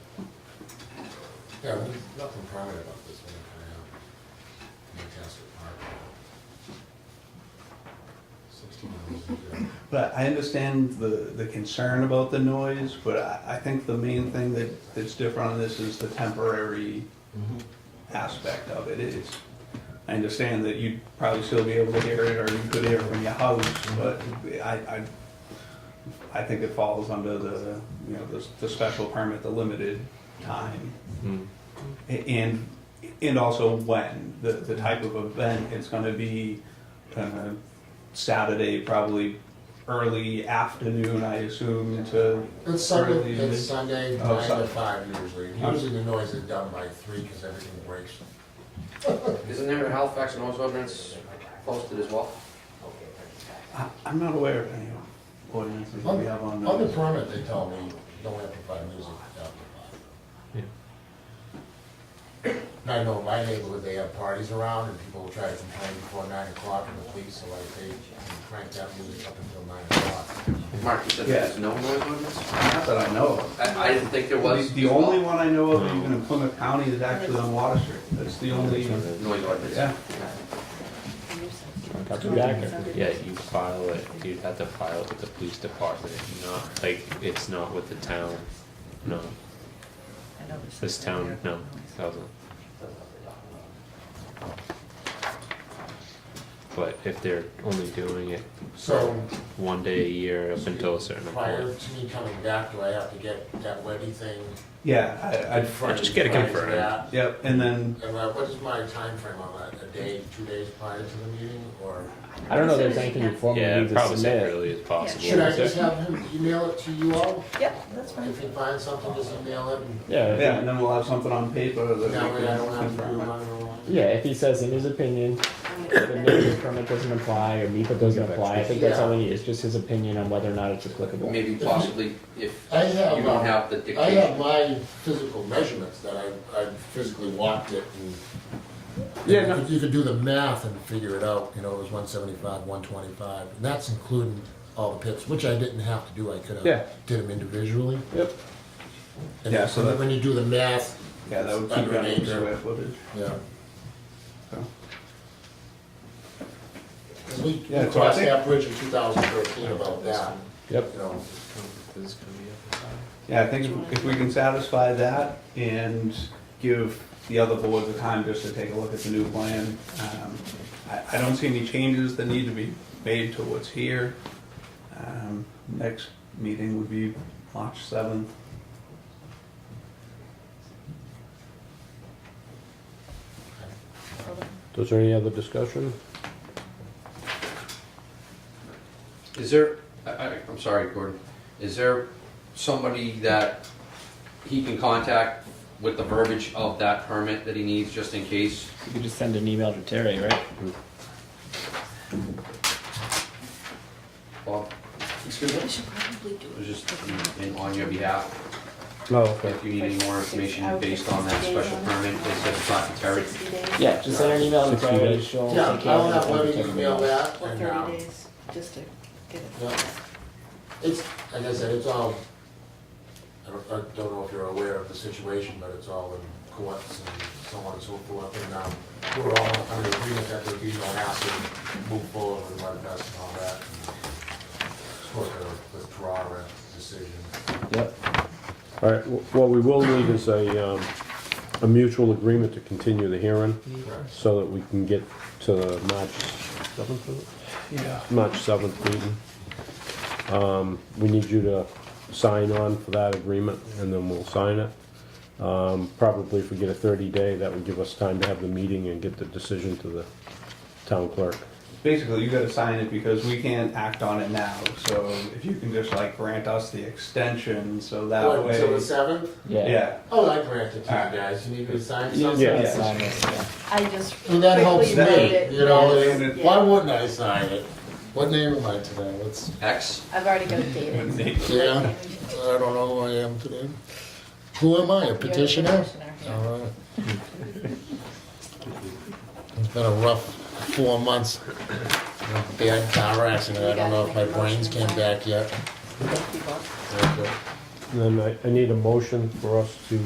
Yeah, there's nothing private about this one, I, uh, Lancaster Park. Sixteen hours a year. But I understand the, the concern about the noise, but I, I think the main thing that, that's different on this is the temporary Mm-hmm. aspect of it. It's, I understand that you'd probably still be able to hear it, or you could hear it from your house, but I, I, I think it falls under the, you know, the, the special permit, the limited time. A- And, and also when, the, the type of event, it's gonna be, uh, Saturday, probably early afternoon, I assume, to. It's Sunday, early mid- it's Sunday, nine Oh, to Sunday. Mm-hmm. five usually, usually the noise is done by three, cause everything breaks. Isn't there a Halifax noise ordinance posted as well? I, I'm not aware of any ordinances that we have on. uh, On the permit, they tell me, don't amplify music after five. And I know in my neighborhood, they have parties around, and people will try to complain before nine o'clock, and the police will like, they crank that music up until nine o'clock. Mark, you said there's no noise ordinance? Not that I know of. I, I didn't think there The, was. the only one I know of even in Plymouth County is actually on Water Street. That's the only, Noise ordinance. yeah. Yeah, you file it, you'd have to file it with the police department, not, like, it's not with the town, no, this town, no, doesn't. But if they're only doing it So, one day a year up until a certain prior point, to me coming back, do I have to get that Webby thing? Yeah, I, I'd, prior- just get it prior to confirmed. that? yep, and then, And uh, what is my time frame on that, a day, two days prior to the meeting, or? I don't know if there's anything you formally yeah, need to probably as submit. early as possible. Should I just have him email it to you all? Yep, that's fine. If he finds something, just email it, and Yeah, yeah, if and he- then we'll have something on paper that we that way I can don't have to do confirm. mine or what. yeah, if he says in his opinion, the NEPA permit doesn't apply or NEPA doesn't apply, I think that's all we need, it's just his opinion on whether or not it's applicable. Maybe possibly if I have, you don't uh, have the I have dictation. my physical measurements that I, I physically walked it and. Yeah, no. You could do the math and figure it out, you know, it was one seventy-five, one twenty-five, and that's including all the pits, which I didn't have to do, I could Yeah. have did them individually. Yep. And Yeah, so when- that- When you do the math, Yeah, that would keep Under it an on acre. square footage. yeah. So. 'Cause we, Yeah, we so I crossed think- that bridge in two thousand thirteen about that, Yep, you know. This is gonna be up. Yeah, I think if- if we can satisfy that and give the other board the time just to take a look at the new plan, um, I, I don't see any changes that need to be made to what's here. Um, Next meeting would be March seventh. was there any other discussion? Is there, I, I, I'm sorry, Gordon, is there somebody that he can contact with the verbiage of that permit that he needs just in case? You could just send an email to Terry, right? Bob, excuse me, We should probably do it it. was just in- in- on your behalf. Oh, okay. If you need any more information based on that special permit, please just talk to Terry. Sixty days. Yeah, just send an email to Sixty Terry, days. she'll Yeah, take care I'll of have it. and Webby take it email away. that Or and, thirty um, days, just to get yeah. it. It's, like I said, it's all, I don't, I don't know if you're aware of the situation, but it's all in courts and so on and so forth. And, um, we're all under agreement that there'd be no hassle, move forward with my best and all that. Sort of withdraw a decision. Yep, All right, wh- what we will need is a, um, a mutual agreement to continue the hearing Correct. so that we can get to the March seventh, is Yeah. it? March seventh meeting. Um, we need you to sign on for that agreement and then we'll sign it. Um, probably if we get a thirty day, that would give us time to have the meeting and get the decision to the town clerk. Basically, you gotta sign it because we can't act on it now, so if you can just like grant us the extension, so that What, Until way. the seventh? yeah. Yeah, Oh, I grant it to you Alright. guys. You need me to sign You just something? gotta Yeah. sign it, yeah. I just. And that helps quickly wrote me, it, you know, yes, and yeah. why wouldn't I sign it? What name am I today? What's, X? I've already got it dated. yeah, I don't know who I am today. Who am I, a petitioner? All right. It's been a rough four months. Bad car accident, I don't know if my brains came back yet. People. Okay. And Then I, I need a motion for us to